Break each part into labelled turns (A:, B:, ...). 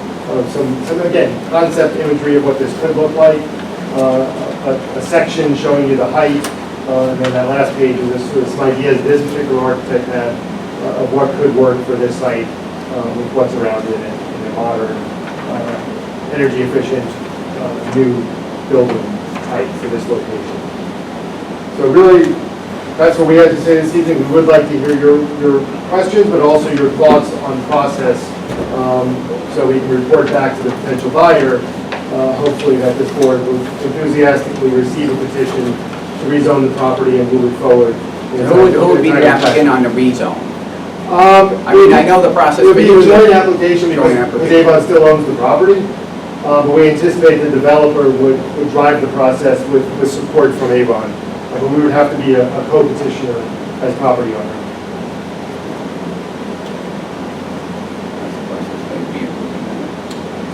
A: know, some, some, Uh, again, concept imagery of what this could look like, uh, a, a section showing you the height, uh, and then that last page is this, this idea this particular architect had uh, of what could work for this site, um, with what's around it in a- in a modern, uh, energy efficient, uh, new building type for this location. So really, that's what we had to say this evening. We would like to hear your, your questions, but also your thoughts on process, um, so we can report back to the potential buyer, uh, hopefully that this board will enthusiastically receive a petition to rezone the property and move it forward.
B: So Who would, who would be the applicant on the rezone?
A: Um,
B: I mean, I know the process.
A: It would be a
B: but-
A: joint application
B: Joint
A: because
B: application.
A: Avon still owns the property, uh, but we anticipate the developer would, would drive the process with, with support from Avon. Uh, But we would have to be a a co-petitioner as property owner.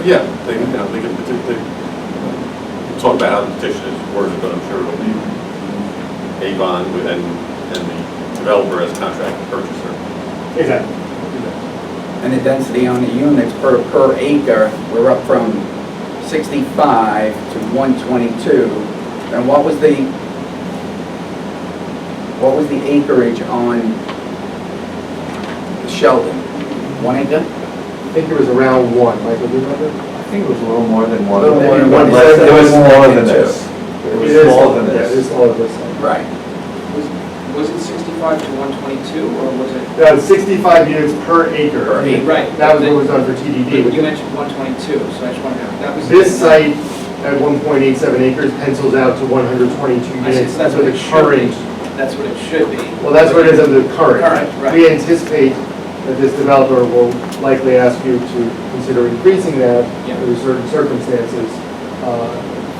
C: Yeah, they, you know, they can, peti- they, we'll talk about how the petition is worded, but I'm sure it'll be Avon with- and, and the developer as contract purchaser.
A: Exactly.
B: And the density on the units per, per acre, we're up from 65 to 122. And what was the, what was the acreage on Sheldon? One acre?
A: I think it was around one, Michael, do you remember?
D: I think it was a little more than one.
A: A little more than one.
D: It was- It was smaller than
B: Two.
D: this. It
A: It
D: was
A: is-
D: smaller than
A: Yeah, it is
D: this.
A: smaller than this.
B: Right.
E: Was it 65 to 122, or was it?
A: That was 65 units per acre.
B: Per acre.
E: Right.
A: That was what was done for TDD.
E: You mentioned 122, so I just wanted to, that was.
A: This site at 1.87 acres pencils out to 122
E: I see,
A: units.
E: so that's
A: for
E: what
A: the
E: it should be.
A: current
E: That's what it should be.
A: Well, that's what it is under the current.
E: Current, right.
A: We anticipate that this developer will likely ask you to consider increasing that
E: Yeah.
A: under certain circumstances uh,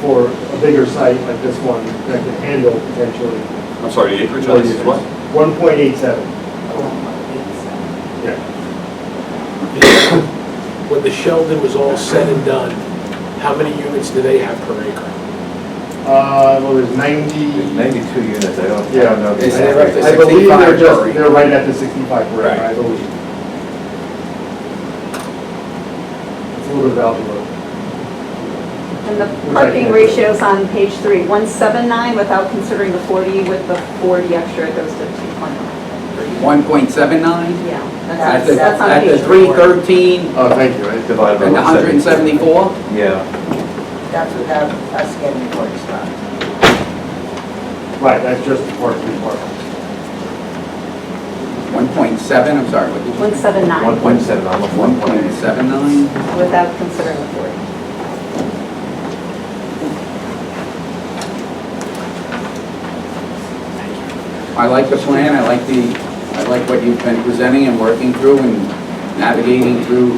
A: for a bigger site like this one that can handle potentially.
C: I'm sorry, the acreage on this is what?
A: 1.87.
E: Oh,
A: Yeah.
F: When the Sheldon was all said and done, how many units do they have per acre?
A: Uh, Well, there's 90,
D: Ninety-two units, I don't, I
A: Yeah.
D: don't know. the
B: Is there
D: exact-
B: a-
A: I believe they're
B: 65
A: just,
B: per acre.
A: they're right at the 65 per acre,
B: Right.
A: I believe. It's a little bit of algebra.
G: And the parking ratios on page three, 179 without considering the 40, with the 40 extra, it goes to 2.9.
B: 1.79?
G: Yeah,
B: At
G: that's
B: the,
G: on- that's on
B: at
G: page
B: the
G: four.
B: 313
A: Oh, thank you. I-
D: Divided by
B: and the
D: 174.
B: 174?
D: Yeah,
H: That's without us getting the work done.
A: Right, that's just the part three part.
B: 1.7, I'm sorry, what did you?
G: 179
D: 1.7, almost 1.8.
B: 1.79?
G: without considering the 40.
B: I like the plan, I like the, I like what you've been presenting and working through and navigating through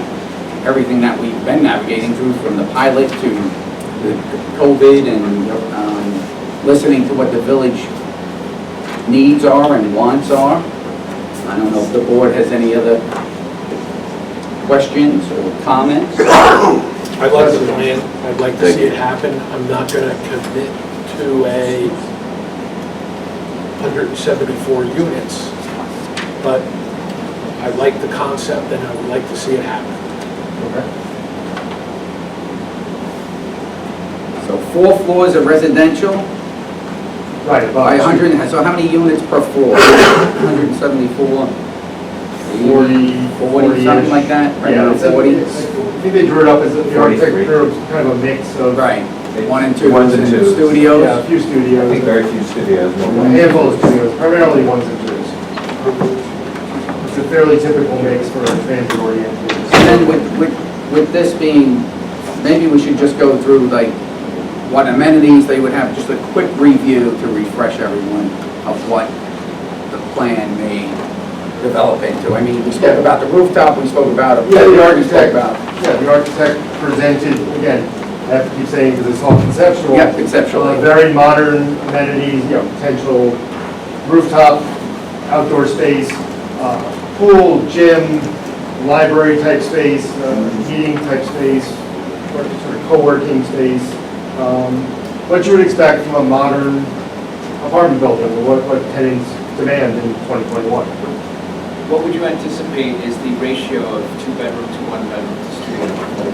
B: everything that we've been navigating through, from the pilot to the COVID and, um, listening to what the village needs are and wants are. I don't know if the board has any other questions or comments.
F: I like the plan, I'd like to see it happen. I'm not gonna commit to a 174 units, but I like the concept and I would like to see it happen.
B: So four floors of residential
A: Right, about.
B: by 100, so how many units per floor? 174?
A: 40,
B: 40, something like that, right
A: Yeah,
B: around
A: it's a-
B: 40?
A: I think they drew it up as, a- the architect drew it as kind of a mix of.
B: Right, one and two,
D: Ones
B: and
D: and twos.
A: Yeah, a
B: studios.
A: few
D: I think
A: studios,
D: very few studios.
A: a
D: will-
A: handful of studios, primarily ones and twos. It's a fairly typical mix for a transit
B: And
A: oriented.
B: then with, with, with this being, maybe we should just go through like what amenities they would have, just a quick review to refresh everyone of what the plan may develop into. I mean, we spoke about the rooftop, we spoke about.
A: Yeah, the
B: we spoke
A: architect,
B: about-
A: yeah, the architect presented, again, I have to keep saying because it's all conceptual.
B: Yeah, conceptually.
A: Uh, Very modern amenities, you know, potential rooftop, outdoor space, uh, pool, gym, library type space, uh, meeting type space, or sort of co-working space. um, What you would expect from a modern apartment building, or what what tenants demand in 2021.
E: What would you anticipate is the ratio of two-bedroom to one-bedroom to studio?